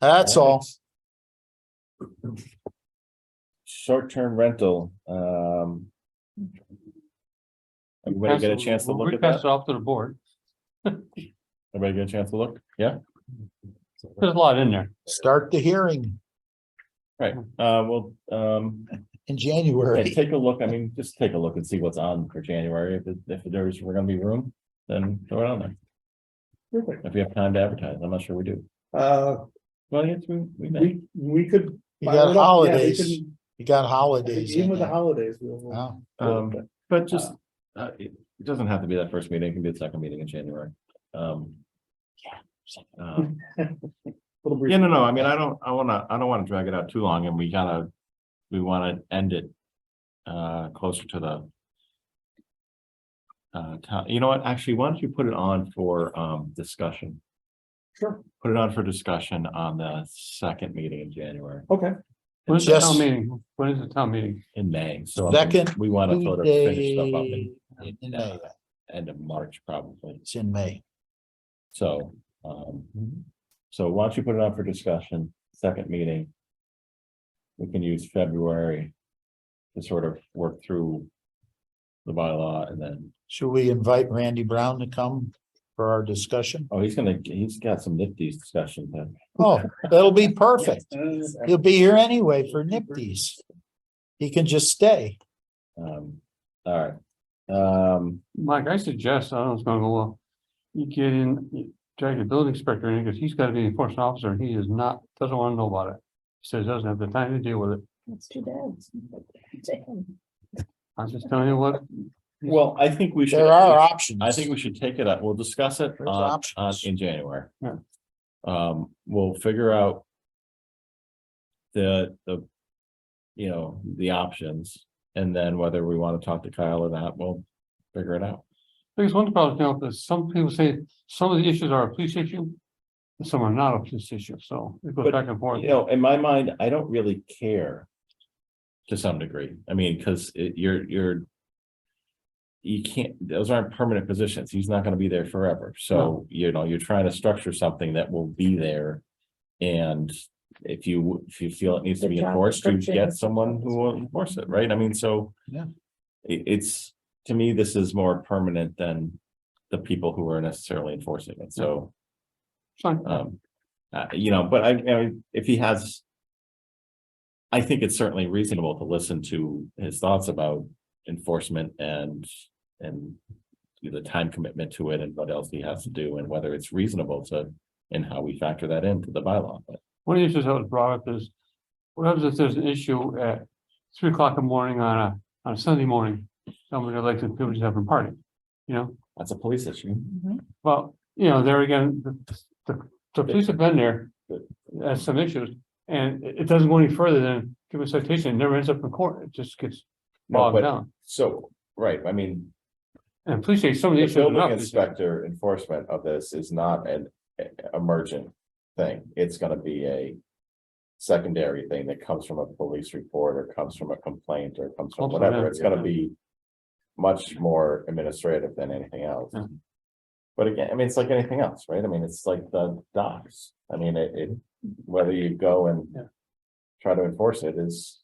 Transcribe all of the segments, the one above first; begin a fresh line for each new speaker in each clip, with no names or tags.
That's all.
Short-term rental, um. Everybody get a chance to look at
Pass it
that?
off to the board.
Everybody get a chance to look? Yeah? Uh,
There's a lot in there.
Start the hearing
Right, uh, well, um,
in
yeah,
January.
take a look, I mean, just take a look and see what's on for January. If, it- if there's, we're gonna be room, then throw it on there.
Perfect.
If we have time to advertise, I'm not sure we do.
Uh,
Well, yes, we, we may.
we, we could.
You
file it up. Yeah,
got
we
holidays,
can-
you got holidays.
Even
in
with the
there.
holidays, we'll. we'll-
Wow.
Um, but just, uh, it, it doesn't have to be that first meeting, it can be the second meeting in January. Um. Yeah. Um,
Little brief.
yeah, no, no, I mean, I don't, I wanna, I don't wanna drag it out too long and we gotta, we wanna end it. Uh, closer to the. Uh, town, you know what, actually, why don't you put it on for, um, discussion?
Sure.
Put it on for discussion on the second meeting in January,
Okay,
When's the
Yes.
town meeting? When is the town meeting?
in May, so. I mean,
Second
We wanna sort of finish stuff up in,
Tuesday in May.
end of March, probably.
It's in May.
So, um,
Mm-hmm.
so why don't you put it on for discussion, second meeting? We can use February to sort of work through the bylaw and then,
Should we invite Randy Brown to come for our discussion?
oh, he's gonna, he's got some nifty discussions then.
Oh, that'll be perfect.
Uh,
He'll be here anyway for nifties. He can just stay.
Um, all right. Um,
Mike, I suggest, I don't know, it's gonna go well. You get in, you drag the building inspector in, because he's gotta be an enforcement officer, and he is not, doesn't wanna know about it. He Says doesn't have the time to deal with it.
That's too bad. Damn.
I'm just telling you what,
well, I think we should.
There are options.
I think we should take it up. We'll discuss it
There's
on, on,
options.
in January.
Yeah.
Um, we'll figure out. The, the. You know, the options and then whether we want to talk to Kyle or not, we'll figure it out.
Because one problem, you know, is some people say some of the issues are a police issue. and Some are not a police issue, so it goes
But,
back and forth.
You know, in my mind, I don't really care. To some degree. I mean, because it, you're, you're. You can't, those aren't permanent positions. He's not gonna be there forever. So, you know, you're trying to structure something that will be there. And if you, if you feel it needs to
The
be
job
enforced, you
description
get
is-
someone who will enforce it, right? I mean, so.
Yeah.
It, it's, to me, this is more permanent than the people who are necessarily enforcing it. So.
It's fine.
Um, uh, you know, but I, I, if he has. I think it's certainly reasonable to listen to his thoughts about enforcement and, and. The time commitment to it and what else he has to do and whether it's reasonable to, and how we factor that into the bylaw. But
One of the issues that was brought up is, what happens if there's an issue at three o'clock in the morning on a, on a Sunday morning? Somebody like to, people just having a party, you know,
That's a police issue.
well, you know, there again, the, the, the police have been there. uh, Has some issues, and it, it doesn't go any further than give a citation, it never ends up in court, it just gets
No,
bogged
but,
down.
so, right, I mean,
And police say some of the
the
issues. are not
building
police issues.
inspector enforcement of this is not an eh, emergent thing. It's gonna be a. Secondary thing that comes from a police report or comes from a complaint or comes from
Ultimately,
whatever. It's gonna
yeah.
be. Much more administrative than anything else.
Yeah.
But again, I mean, it's like anything else, right? I mean, it's like the docks. I mean, it, it, whether you go and.
Yeah.
Try to enforce it is.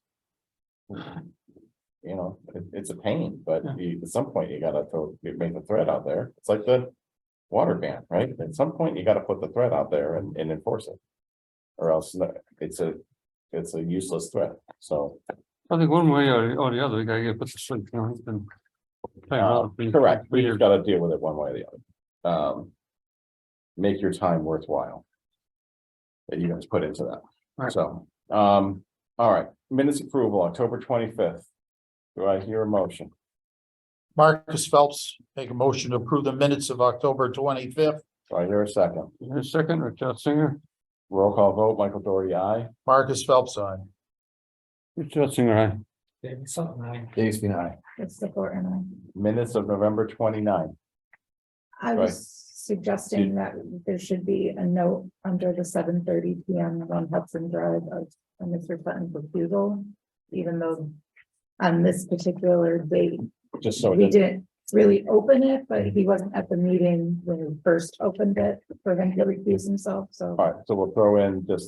You know, it, it's a pain, but
Yeah.
you, at some point you gotta throw, you make the threat out there. It's like the. Water ban, right? At some point you gotta put the threat out there and, and enforce it. Or else no- it's a, it's a useless threat, so.
I think one way or, or the other, you gotta get put to sleep, you know, it's been. playing around for-
Uh, um, Correct,
for
we
years.
just gotta deal with it one way or the other. Um. Make your time worthwhile. That you guys put into that,
Right.
so, um, all right, minutes approval, October twenty-fifth. Do I hear a motion?
Marcus Phelps, make a motion to approve the minutes of October twenty-fifth.
Do I hear a second?
Is there a Second, or Jeff Singer,
Roll call vote, Michael Doherty, aye.
Marcus Phelps on.
Jeff Singer, aye.
Dave's been aye.
That's the four and
Minutes of November 29th.
I. I was suggesting that there should be a note under the seven thirty P M on Hudson Drive of a Mr. Button's refusal. Even though on this particular date,
just so. Oh, it
we
doesn't-
didn't really open it, but he wasn't at the meeting when we first opened it for him to recuse himself, so.
All right, so we'll throw in just